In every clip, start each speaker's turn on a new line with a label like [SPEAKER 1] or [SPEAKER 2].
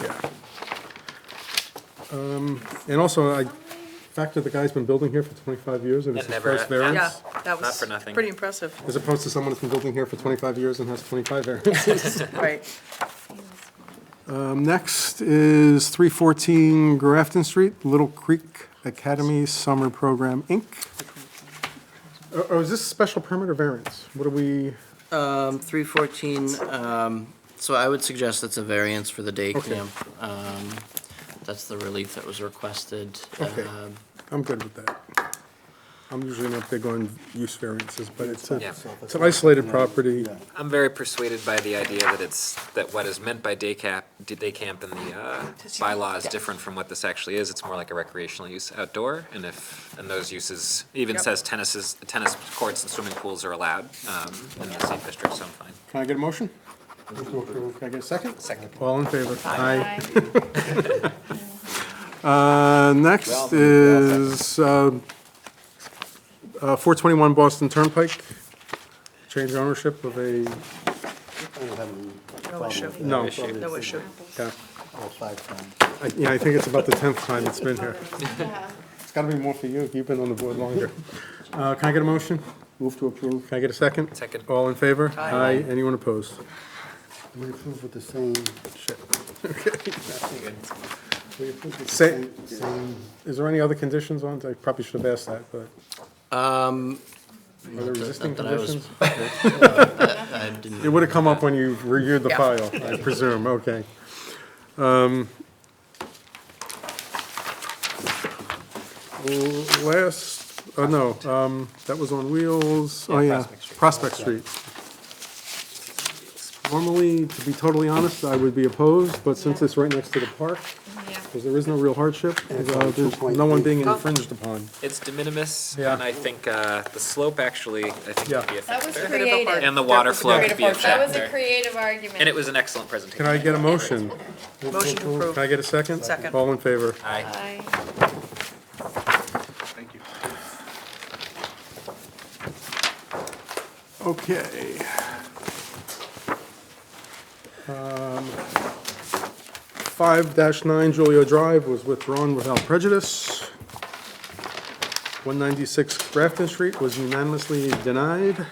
[SPEAKER 1] Yeah. Um, And also, I factor the guy's been building here for 25 years and it's
[SPEAKER 2] That
[SPEAKER 1] his
[SPEAKER 2] never-
[SPEAKER 1] first variance.
[SPEAKER 3] Yeah, that
[SPEAKER 2] Not
[SPEAKER 3] was
[SPEAKER 2] for nothing.
[SPEAKER 3] pretty impressive,
[SPEAKER 1] As opposed to someone that's been building here for 25 years and has 25 variances.
[SPEAKER 3] right.
[SPEAKER 1] Um, Next is 314 Grafton Street, Little Creek Academy Summer Program, Inc. Oh, Oh, is this special permit or variance? What are we,
[SPEAKER 4] Um, three fourteen, um, so I would suggest that's a variance for the day
[SPEAKER 1] Okay.
[SPEAKER 4] camp. Um, that's the relief that was requested.
[SPEAKER 1] Okay.
[SPEAKER 4] Um,
[SPEAKER 1] I'm good with that. I'm usually not big on use variances, but it's, a-
[SPEAKER 2] Yeah.
[SPEAKER 1] it's an isolated property.
[SPEAKER 2] I'm very persuaded by the idea that it's, that what is meant by day cap, day camp in the uh, bylaw is different from what this actually is. It's more like a recreational use outdoor, and if, and those uses, even
[SPEAKER 3] Yep.
[SPEAKER 2] says tennis is, tennis courts and swimming pools are allowed um, in the safe district, so I'm fine.
[SPEAKER 1] Can I get a motion? Can I get a second?
[SPEAKER 2] Second.
[SPEAKER 1] All in favor? Aye. Uh, Next is um, uh, 421 Boston Turnpike, change ownership of a,
[SPEAKER 3] No issue,
[SPEAKER 1] no.
[SPEAKER 3] no issue.
[SPEAKER 1] yeah.
[SPEAKER 5] All five times.
[SPEAKER 1] I- Yeah, I think it's about the 10th time it's been here.
[SPEAKER 6] Yeah.
[SPEAKER 1] It's got to be more for you, you've been on the board longer. Uh, Can I get a motion?
[SPEAKER 5] Move to approve.
[SPEAKER 1] Can I get a second?
[SPEAKER 2] Second.
[SPEAKER 1] All in favor?
[SPEAKER 3] Aye.
[SPEAKER 1] Anyone opposed?
[SPEAKER 5] We approve with the same, we approve with the
[SPEAKER 1] Say-
[SPEAKER 5] same, same,
[SPEAKER 1] Is there any other conditions on, it? I probably should have asked that, but
[SPEAKER 4] Um,
[SPEAKER 1] are there existing
[SPEAKER 4] not that I was-
[SPEAKER 1] conditions?
[SPEAKER 4] I didn't.
[SPEAKER 1] It would have come up when you reviewed the
[SPEAKER 3] Yeah.
[SPEAKER 1] file, I presume, okay. Um, l- Last, oh, no, um, that was on wheels, oh, yeah, Prospect Street. Normally, to be totally honest, I would be opposed, but since it's right next to the park, because there is no real hardship, uh, there's no one being infringed upon.
[SPEAKER 2] It's de minimis,
[SPEAKER 1] Yeah.
[SPEAKER 2] and I think uh, the slope actually, I think
[SPEAKER 1] Yeah.
[SPEAKER 2] would be a
[SPEAKER 6] That was
[SPEAKER 2] factor.
[SPEAKER 3] creative.
[SPEAKER 6] creative.
[SPEAKER 2] And the
[SPEAKER 3] That
[SPEAKER 2] water
[SPEAKER 3] was
[SPEAKER 2] flow
[SPEAKER 3] great
[SPEAKER 2] could be a
[SPEAKER 3] approach. That
[SPEAKER 6] That was
[SPEAKER 2] factor.
[SPEAKER 6] a creative argument.
[SPEAKER 2] And it was an excellent
[SPEAKER 1] Can
[SPEAKER 2] presentation.
[SPEAKER 1] I get a motion?
[SPEAKER 3] Motion to approve.
[SPEAKER 1] Can I get a second?
[SPEAKER 3] Second.
[SPEAKER 1] All in favor?
[SPEAKER 2] Aye.
[SPEAKER 6] Aye.
[SPEAKER 1] Okay. Um, Five nine Julio Drive was withdrawn without prejudice. One ninety-six Grafton Street was unanimously denied.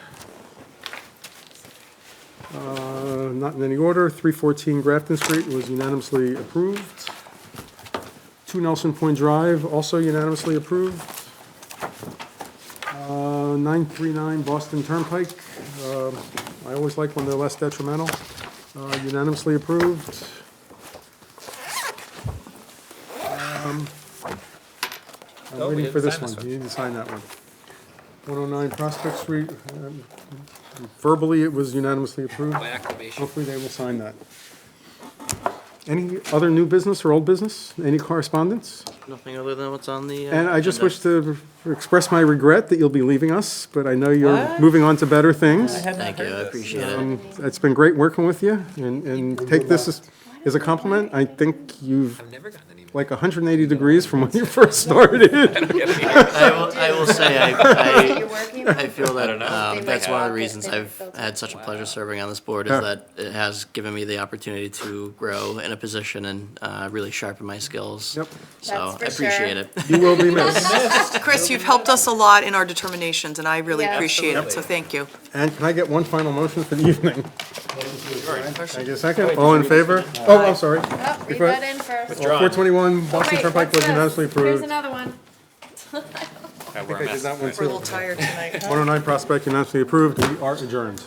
[SPEAKER 1] Uh, Not in any order, three fourteen Grafton Street was unanimously approved. Two Nelson Point Drive also unanimously approved. Uh, 939 Boston Turnpike. Um, I always like when they're less detrimental. Uh, Unanimously approved. Um, I'm
[SPEAKER 2] Oh, we
[SPEAKER 1] waiting
[SPEAKER 2] didn't
[SPEAKER 1] for this
[SPEAKER 2] sign
[SPEAKER 1] one.
[SPEAKER 2] this one.
[SPEAKER 1] You need to sign that one. 109 Prospect Street. um, Verbally, it was unanimously approved.
[SPEAKER 2] By acclamation.
[SPEAKER 1] Hopefully, they will sign that. Any other new business or old business? Any correspondence?
[SPEAKER 4] Nothing other than what's on the. uh,
[SPEAKER 1] And I just
[SPEAKER 4] agenda.
[SPEAKER 1] wish to express my regret that you'll be leaving us, but I know you're
[SPEAKER 4] What?
[SPEAKER 1] moving on to better things.
[SPEAKER 4] Thank you, I appreciate it.
[SPEAKER 1] Um, It's been great working with you, and, and take this as, as a compliment. I think you've,
[SPEAKER 2] I've never gotten an email.
[SPEAKER 1] like, 180 degrees from when you first started.
[SPEAKER 4] I will, I will say, I,
[SPEAKER 6] You're working.
[SPEAKER 4] I, I feel that, um, that's one of the reasons
[SPEAKER 6] They might
[SPEAKER 4] I've
[SPEAKER 6] have-
[SPEAKER 4] had such a pleasure serving on this board,
[SPEAKER 1] Yeah.
[SPEAKER 4] is that it has given me the opportunity to grow in a position and, uh, really sharpen my skills.
[SPEAKER 1] Yep.
[SPEAKER 4] So,
[SPEAKER 6] That's for
[SPEAKER 4] I appreciate
[SPEAKER 6] sure.
[SPEAKER 4] it.
[SPEAKER 1] You will be missed.
[SPEAKER 3] Chris, you've helped us a lot in our determinations, and I really
[SPEAKER 6] Yeah.
[SPEAKER 3] appreciate it, so thank you.
[SPEAKER 1] And can I get one final motion for the evening? Thank you, second. All in favor? Oh, I'm sorry.
[SPEAKER 6] Oh, read
[SPEAKER 1] Before-
[SPEAKER 6] that in first.
[SPEAKER 1] 421
[SPEAKER 6] Oh,
[SPEAKER 1] Boston
[SPEAKER 6] wait,
[SPEAKER 1] Turnpike
[SPEAKER 6] what's
[SPEAKER 1] was
[SPEAKER 6] this?
[SPEAKER 1] unanimously
[SPEAKER 6] Here's
[SPEAKER 1] approved.
[SPEAKER 6] another one.
[SPEAKER 2] I
[SPEAKER 1] I did that one
[SPEAKER 3] We're a
[SPEAKER 1] too.
[SPEAKER 3] little tired tonight.
[SPEAKER 1] 109 Prospect unanimously approved. We are adjourned.